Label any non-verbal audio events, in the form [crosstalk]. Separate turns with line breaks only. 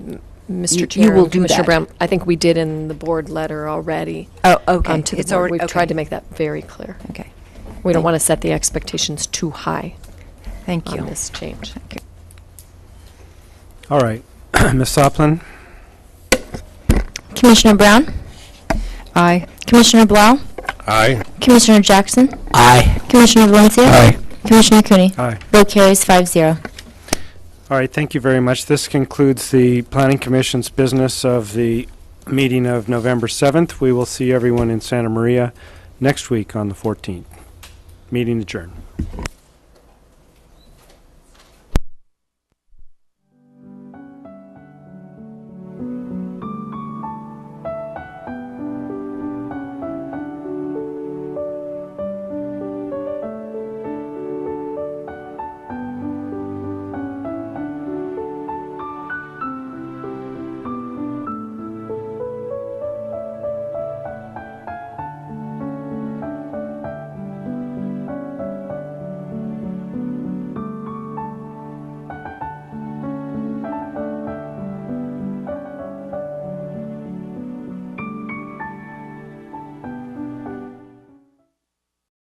Mr.
You-
Chair.
you will
and
do
Commissioner
that.
Brown, I think we did in the board letter already.
Oh, okay.
um, To the
It's
board.
already-
We've tried
okay.
to make that very clear.
Okay.
We don't
Thank-
want to set the expectations too high
Thank you.
on this change.
Thank you.
All right. [clears throat] Ms. Soplin?
Commissioner Brown,
Aye.
Commissioner Blau,
Aye.
Commissioner Jackson,
Aye.
Commissioner Valencia,
Aye.
Commissioner Cooney.
Aye.
Vote carries five zero.
All right, thank you very much. This concludes the Planning Commission's business of the meeting of November 7th. We will see everyone in Santa Maria next week on the 14th. Meeting adjourned.